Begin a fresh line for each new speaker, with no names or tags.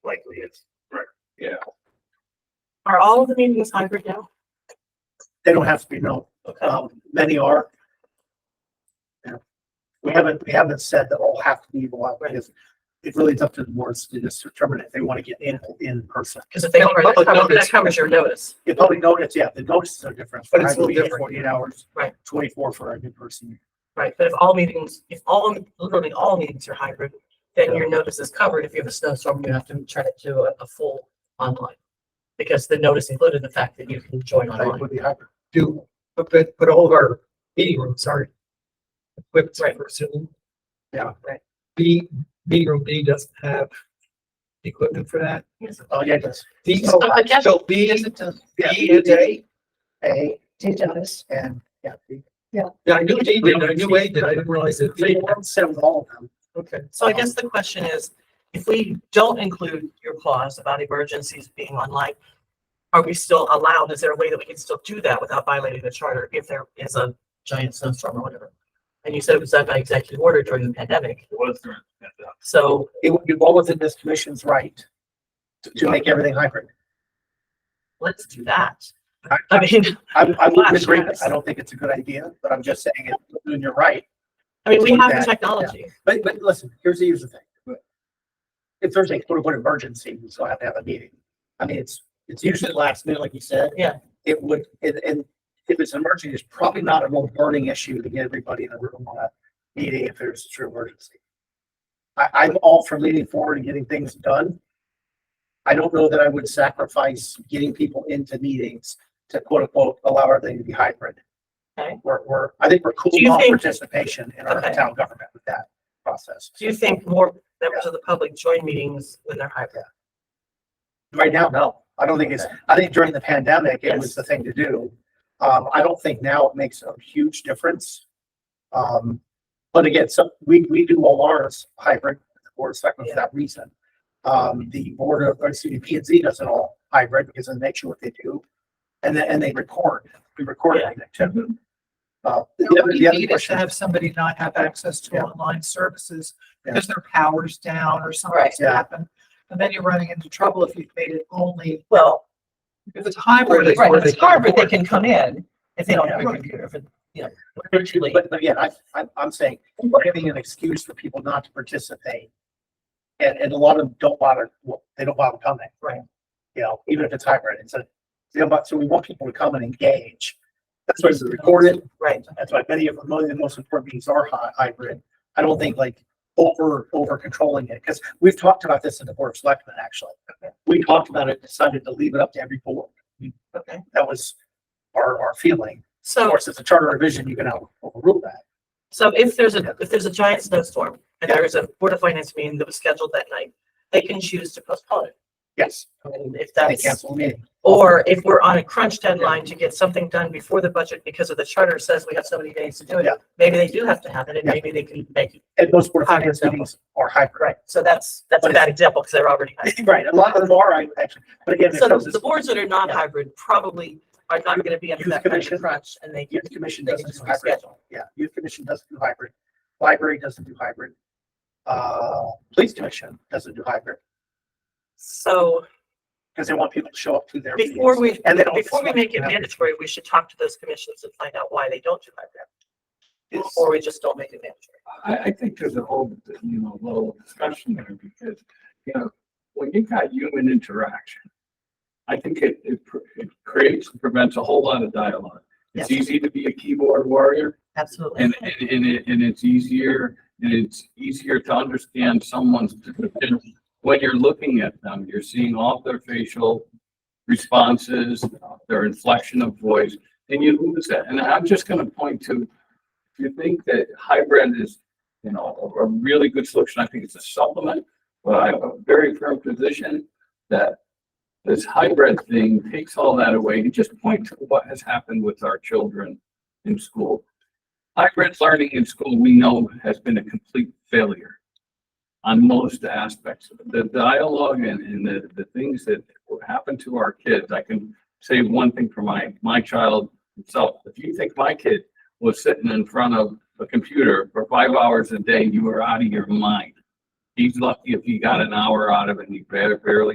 sites.
Right, yeah.
Are all of the meetings hybrid now?
They don't have to be, no. Um, many are. Yeah. We haven't, we haven't said that all have to be live, because it really is up to the boards to just determine if they want to get in, in person.
Because if they
No,
are, that
public
covers, that
notice.
covers your notice.
The public notice, yeah, the notices are different.
But it's a little
Probably
different.
Forty-eight hours.
Right.
Twenty-four for a new person.
Right, but if all meetings, if all, literally all meetings are hybrid, then your notice is covered. If you have a snowstorm, you have to turn it to a, a full online. Because the notice included the fact that you can join
I
online.
would be happy to do, but, but, but all of our meeting rooms are equipped
Right.
for Zoom.
Yeah.
Right.
B, meeting room B doesn't have equipment for that.
Oh, yeah, that's
D,
So
I guess-
so B,
yeah,
B and A,
A
Did notice.
and, yeah. B.
yeah, I knew D, did, I knew A, did, I didn't realize it.
They don't send all of them.
Okay.
So I guess the question is, if we don't include your clause about emergencies being online, are we still allowed, is there a way that we can still do that without violating the charter if there is a giant snowstorm or whatever? And you said it was done by executive order during the pandemic,
It was during the pandemic.
so
It would be well within this commission's right to- to make everything hybrid.
let's do that.
I-
I mean,
I, I wouldn't
Gosh,
agree. with-
yes.
I don't think it's a good idea, but I'm just saying it, and you're right.
I mean, we
Like
have the
that,
technology.
But, but listen, here's the, here's the thing. If there's a quote unquote emergency, we still have to have a meeting. I mean, it's, it's usually last minute, like you said.
Yeah.
It would, and, and if it's an emergency, it's probably not a real burning issue to get everybody in the room on a meeting if there's a true emergency. I, I'm all for leaning forward and getting things done. I don't know that I would sacrifice getting people into meetings to quote unquote allow everything to be hybrid.
Okay.
We're, we're, I think we're
Do
cooling
you
off
think-
participation in our
Okay.
town government with that process.
Do you think more members of the public join meetings when they're hybrid?
Right now, no. I don't think it's, I think during the pandemic, it was
Yes.
the thing to do. Um, I don't think now it makes a huge difference. Um, but again, so we, we do all ours hybrid, or second for that reason. Um, the board of, or excuse me, P and Z does it all hybrid because of the nature of what they do. And then, and they record, we record
Yeah.
everything too. Uh,
Now,
the
What
other,
do
the
you
other
Mm-hmm. need is to
question,
have somebody not have access to
Yeah.
online services
Yeah.
because their power's down or something's
yeah.
happened. And then you're running into trouble if you've made it only,
Well,
if it's hybrid. it's
right,
where
if it's
can
hybrid, they
afford it.
can come in if they don't have a
Right.
computer, if, it- you know, virtually.
but but again, I, I'm, I'm saying, giving an excuse for people not to participate. And, and a lot of them don't bother, well, they don't bother coming.
Right.
You know, even if it's hybrid, it's a, you know, but so we want people to come and engage. That's why it's recorded,
Right,
that's why many of, most of the most important meetings are hy- hybrid. I don't think like over, over controlling it, because we've talked about this in the board of selectmen, actually. We talked about it, decided to leave it up to every board.
okay.
That was our, our feeling. Of
So,
course, it's a charter revision, you can out- overrule that.
so if there's a, if there's a giant snowstorm and there is a Board of Finance meeting that was scheduled that night, they can choose to postpone it.
Yes,
And if
they
that's,
cancel the meeting.
or if we're on a crunch deadline to get something done before the budget because of the charter says we have so many days to do it,
Yeah.
maybe they do have to have it and
Yeah.
maybe they can make it.
And most board of
Hybrid
finance
example.
meetings are hybrid.
Right, so that's, that's a bad example because they're already. hybrid.
Right, a lot of them are, I, actually, but again, it
So
comes
the-
as
the boards that are not hybrid probably are not gonna be under
Youth
that kind
commission.
of crunch and they.
youth commission
they can
doesn't do
just
hybrid.
reschedule.
Yeah, youth commission doesn't do hybrid. Library doesn't do hybrid. Uh, police commission doesn't do hybrid
So
because they want people to show up to their meetings.
before we,
And they don't
before we
select
make it
members.
mandatory, we should talk to those commissions and find out why they don't do hybrid.
It's-
Or we just don't make it mandatory.
I, I think there's a whole, you know, little discussion there because, you know, when you've got human interaction, I think it, it pr- it creates and prevents a whole lot of dialogue. It's easy to be a keyboard warrior
Absolutely.
and, and, and it, and it's easier, and it's easier to understand someone's, when you're looking at them, you're seeing all their facial responses, their inflection of voice, and you lose that. And I'm just gonna point to, if you think that hybrid is, you know, a, a really good solution, I think it's a supplement, but I have a very firm position that this hybrid thing takes all that away and just point to what has happened with our children in school. Hybrid learning in school, we know, has been a complete failure on most aspects. The dialogue and, and the, the things that happen to our kids, I can say one thing for my, my child himself. If you think my kid was sitting in front of a computer for five hours a day, you are out of your mind. He's lucky if he got an hour out of it, and he barely